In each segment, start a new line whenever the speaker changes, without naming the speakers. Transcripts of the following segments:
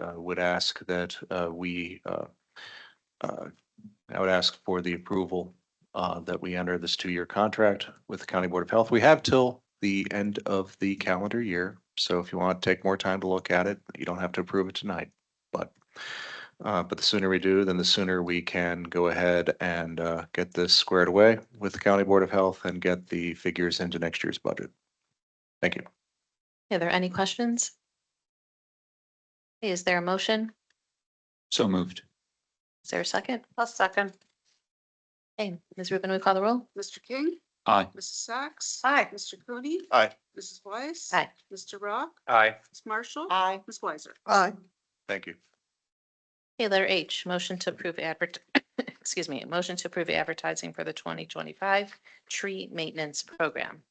uh, would ask that uh, we, uh, uh, I would ask for the approval uh, that we enter this two-year contract with the County Board of Health. We have till the end of the calendar year. So if you want to take more time to look at it, you don't have to approve it tonight. But, uh, but the sooner we do, then the sooner we can go ahead and, uh, get this squared away with the County Board of Health and get the figures into next year's budget. Thank you.
Are there any questions? Is there a motion?
So moved.
Is there a second?
I'll second.
Hey, Ms. Rubin, we call the roll?
Mr. King?
Aye.
Mrs. Sacks?
Aye.
Mr. Cooney?
Aye.
Mrs. Weiss?
Aye.
Mr. Rock?
Aye.
Ms. Marshall?
Aye.
Ms. Weiser?
Aye.
Thank you.
Okay, letter H, motion to approve advert, excuse me, motion to approve advertising for the twenty twenty-five tree maintenance program.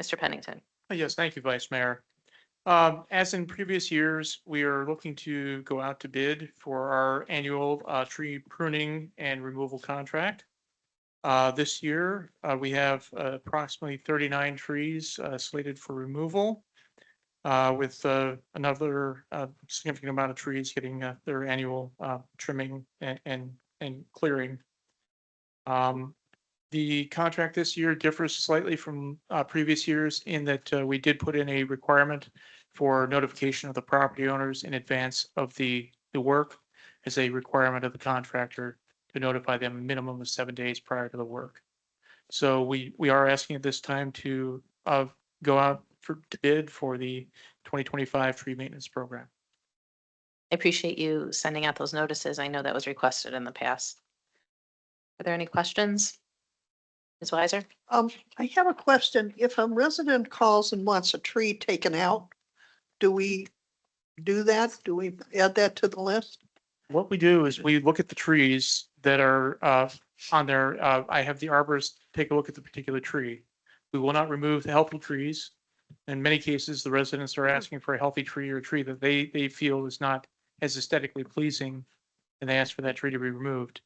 Mr. Pennington,
Uh, Yes, thank you, Vice Mayor. Um, As in previous years, we are looking to go out to bid for our annual uh, tree pruning and removal contract. Uh, This year, uh, we have uh, approximately 39 trees uh, slated for removal, uh, with uh, another uh, significant amount of trees getting uh, their annual uh, trimming and- and, and clearing. Um, the contract this year differs slightly from uh, previous years in that uh, we did put in a requirement for notification of the property owners in advance of the, the work as a requirement of the contractor to notify them a minimum of seven days prior to the work. So we, we are asking at this time to uh, go out for to bid for the 2025 tree maintenance program.
I appreciate you sending out those notices. I know that was requested in the past. Are there any questions? Ms. Weiser?
Um, I have a question. If a resident calls and wants a tree taken out, do we do that? Do we add that to the list?
What we do is we look at the trees that are uh, on there. uh, I have the arborist take a look at the particular tree. We will not remove the helpful trees. In many cases, the residents are asking for a healthy tree or a tree that they, they feel is not as aesthetically pleasing, and they ask for that tree to be removed.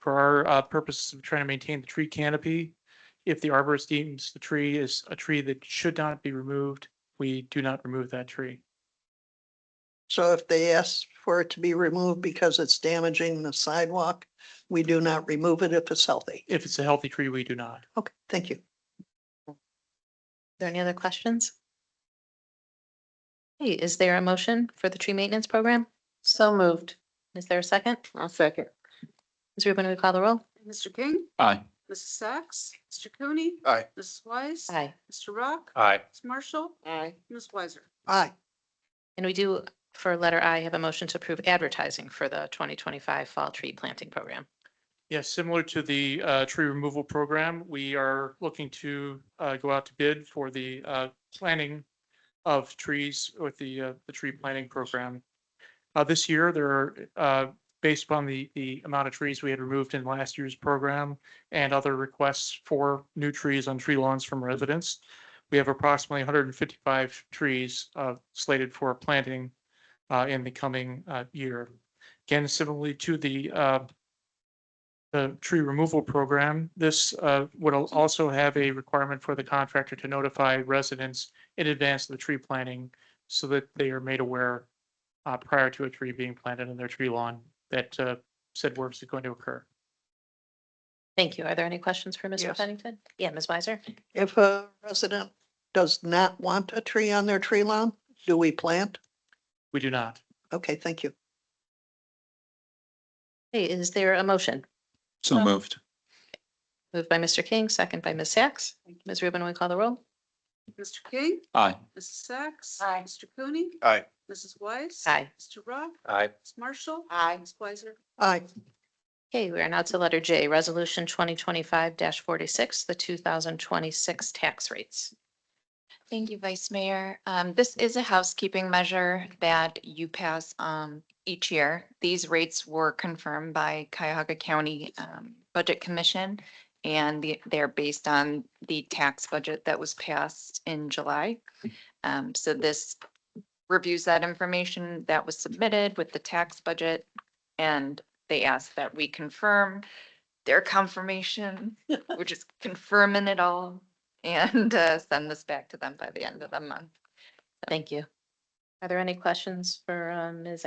For our uh, purposes of trying to maintain the tree canopy, if the arborist deems the tree is a tree that should not be removed, we do not remove that tree.
So if they ask for it to be removed because it's damaging the sidewalk, we do not remove it if it's healthy.
If it's a healthy tree, we do not.
Okay, thank you.
Are there any other questions? Hey, is there a motion for the tree maintenance program?
So moved.
Is there a second?
I'll second.
Ms. Rubin, we call the roll?
Mr. King?
Aye.
Mrs. Sacks? Mr. Cooney?
Aye.
Mrs. Weiss?
Aye.
Mr. Rock?
Aye.
Ms. Marshall? Aye. Ms. Weiser?
Aye,
And we do, for letter I, have a motion to approve advertising for the 2025 Fall Tree Planting Program.
Yes, similar to the uh, tree removal program, we are looking to uh, go out to bid for the uh, planting of trees with the, uh, the tree planting program. Uh, This year, there, are, uh, based upon the, the amount of trees we had removed in last year's program and other requests for new trees on tree lawns from residents, we have approximately 155 trees uh, slated for planting uh, in the coming uh, year. Again, similarly to the uh, the tree removal program, this uh, would al- also have a requirement for the contractor to notify residents in advance of the tree planting so that they are made aware uh, prior to a tree being planted in their tree lawn that uh, said works is going to occur.
Thank you. Are there any questions for Mr.
Yes.
Pennington? Yeah, Ms. Weiser?
if a resident does not want a tree on their tree lawn, do we plant?
We do not.
Okay, thank you.
Hey, is there a motion?
So moved.
Moved by Mr. King, second by Ms. Sacks. Ms. Rubin, we call the roll?
Mr. King?
Aye.
Mrs. Sacks?
Aye.
Mr. Cooney?
Aye.
Mrs. Weiss?
Aye.
Mr. Rock?
Aye.
Ms. Marshall?
Aye.
Ms. Weiser?
Aye,
Okay, we are now to letter J, Resolution 2025-46, the 2026 tax rates.
Thank you, Vice Mayor. Um, this is a housekeeping measure that you pass, um, each year. These rates were confirmed by Cuyahoga County, um, Budget Commission. And the- they're based on the tax budget that was passed in July. Um, so this reviews that information that was submitted with the tax budget. And they ask that we confirm their confirmation, we're just confirming it all and uh, send this back to them by the end of the month.
Thank you. Are there any questions for um, Ms.